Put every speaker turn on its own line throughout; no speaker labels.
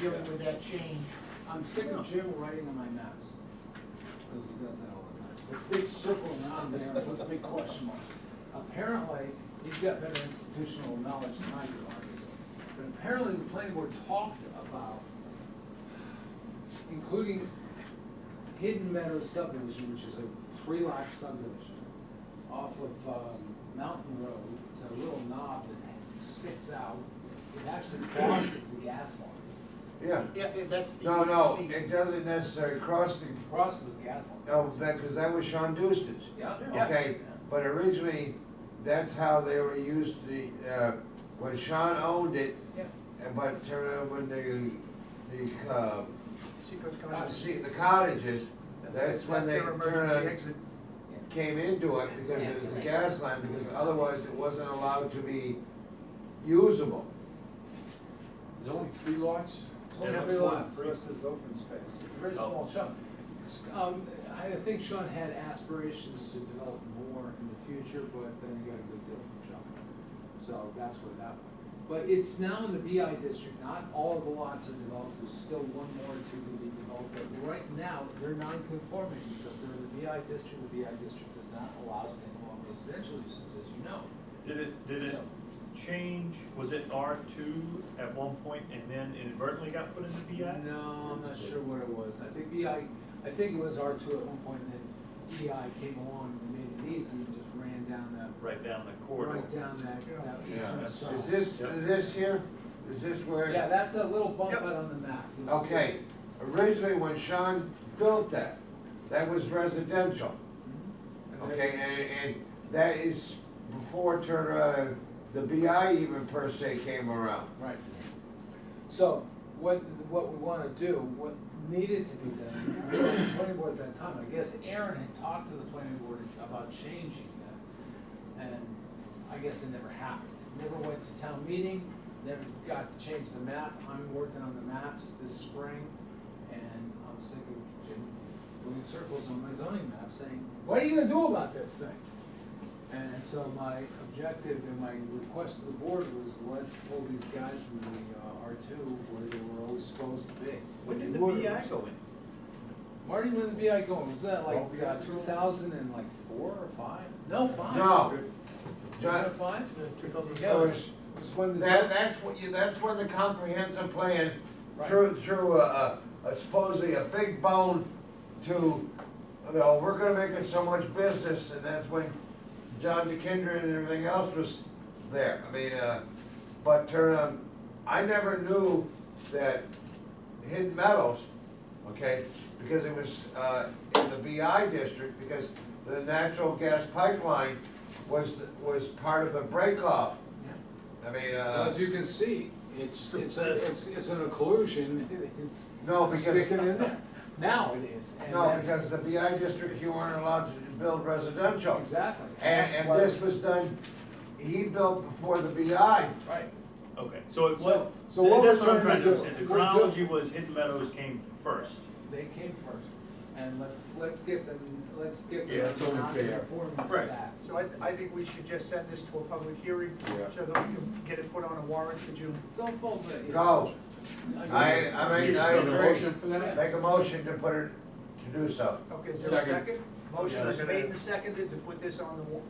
dealing with that change.
I'm sick of Jim writing on my maps, because he does that all the time. It's big circle around there, what's a big question mark? Apparently, he's got better institutional knowledge than I do, obviously. But apparently, the planning board talked about including Hidden Meadow subdivision, which is a three lot subdivision off of, um, Mountain Road. It's a little knob that sticks out. It actually crosses the gas line.
Yeah,
Yeah, that's the.
no, no,
the-
it doesn't necessarily cross the,
Crosses the gas line.
oh, that, because that was Sean Doustin's.
Yeah.
Okay, but originally, that's how they were used to, uh, when Sean owned it,
Yeah.
and but turned it over to the, the, uh,
Seacoast County.
uh, see, the cottages, that's when they
their emergency
turned,
exit.
came into it because it was a gas line, because otherwise it wasn't allowed to be usable.
There's only three lots?
It's only three lots, the rest is open space, it's a very small chunk. It's, Oh. Um, I think Sean had aspirations to develop more in the future, but then he got a good deal from John. So that's where that went. But it's now in the BI district, not all of the lots are developed, there's still one more or two to be developed, but right now, they're non-conforming because they're in the BI district, the BI district does not allow standalone residential uses, as you know.
Did it, did it
So-
change, was it R two at one point and then inadvertently got put into BI?
No, I'm not sure what it was. I think BI, I think it was R two at one point, and then BI came along and made it easy and just ran down that,
Right down the corridor?
right down that, that
Yeah.
eastern
Is
side.
Is this, this here, is this where?
Yeah, that's that little bump
Yep.
out on the map. You'll see it.
Okay, originally when Sean built that, that was residential,
And there-
okay, and, and that is before Turner, uh, the BI even per se came around.
Right. So, what, what we wanna do, what needed to be done, the planning board at that time, I guess Aaron had talked to the planning board about changing that. And I guess it never happened, never went to town meeting, never got to change the map, I'm working on the maps this spring, and I'm sick of Jim doing circles on my zoning map, saying, what are you gonna do about this thing? And so my objective and my request to the board was, let's pull these guys in the uh, R two where they were always supposed to be.
When did the
Were-
BI go in?
Marty, when the BI going, was that like uh, two thousand and like four or five? No, five.
No.
Wasn't it five?
Two thousand
Yeah, it was,
That-
it was when the.
That, that's what you, that's when the comprehensive plan
Right.
through, through a, a supposedly a big bone to, you know, we're gonna make it so much business, and that's when John DeKendron and everything else was there. I mean, uh, but, um, I never knew that Hidden Meadows, okay, because it was, uh, in the BI district, because the natural gas pipeline was, was part of the breakoff.
Yeah.
I mean,
Well,
uh,
As you can see, it's, it's, it's, it's an occlusion, it's.
No, because-
Sticking in there, now it is, and
no,
that's-
because the BI district, you weren't allowed to build residential.
Exactly.
And,
That's why-
and this was done, he built before the BI.
Right.
Okay, so it
So-
was,
so what
that's
we're
what I'm
trying to
trying to
do-
understand, the
we're do-
chronology was Hidden Meadows came first.
They came first, and let's, let's get them, let's get
Yeah,
them
it's only fair.
non-conforming
Right.
stats.
So I, I think we should just send this to a public hearing,
Yeah.
so that we can get it put on a warrant for June.
Don't fold it.
Go. I, I mean, I
Is there a
agree.
motion for that?
Make a motion to put it, to do so.
Okay, is there a
Second.
second? Motion is
Second.
made and seconded to put this on the, wa-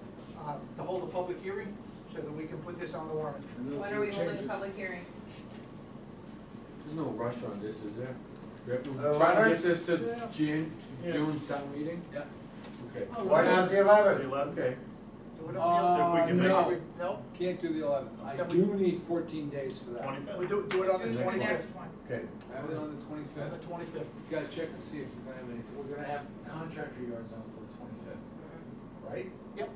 uh, to hold a public hearing, so that we can put this on the warrant.
And then
When
if
are we
you
holding
change
the
it-
public hearing?
There's no rush on this, is there? We have
Uh,
to Try to
Robert?
get this to June,
Yeah.
June town meeting?
Yeah.
Okay.
Oh,
Why not the eleventh?
Okay.
So we don't,
If we can make
Uh,
it-
no,
Can't do the eleventh, I
Then we-
do need fourteen days for that.
we
Twenty-fifth?
do, do it on the
Do the next
twenty-fifth,
one.
Okay.
Have it on the
on the
twenty-fifth,
twenty-fifth.
gotta check and see if we're gonna have any, we're gonna have contractor yards on for the twenty-fifth, right?
Yep.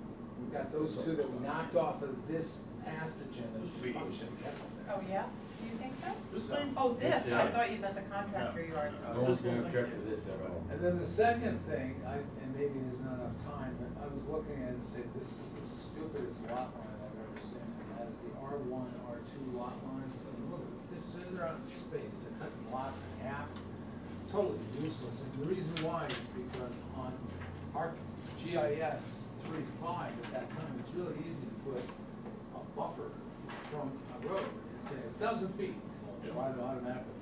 We've got those two that we knocked off of this past agenda.
We-
Probably should've kept them there.
Oh, yeah? Do you think so?
This thing?
Oh, this, I
Yeah.
thought you meant the contractor
No.
yard.
No one's gonna object to this at all.
And then the second thing, I, and maybe there's not enough time, but I was looking at it and said, this is the stupidest lot line I've ever seen. It has the R one, R two lot lines, and look, it's- they're- they're out of space, they're cutting lots in half, totally useless. And the reason why is because on our GIS three five at that time, it's really easy to put a buffer from a road and say a thousand feet, it'll drive automatically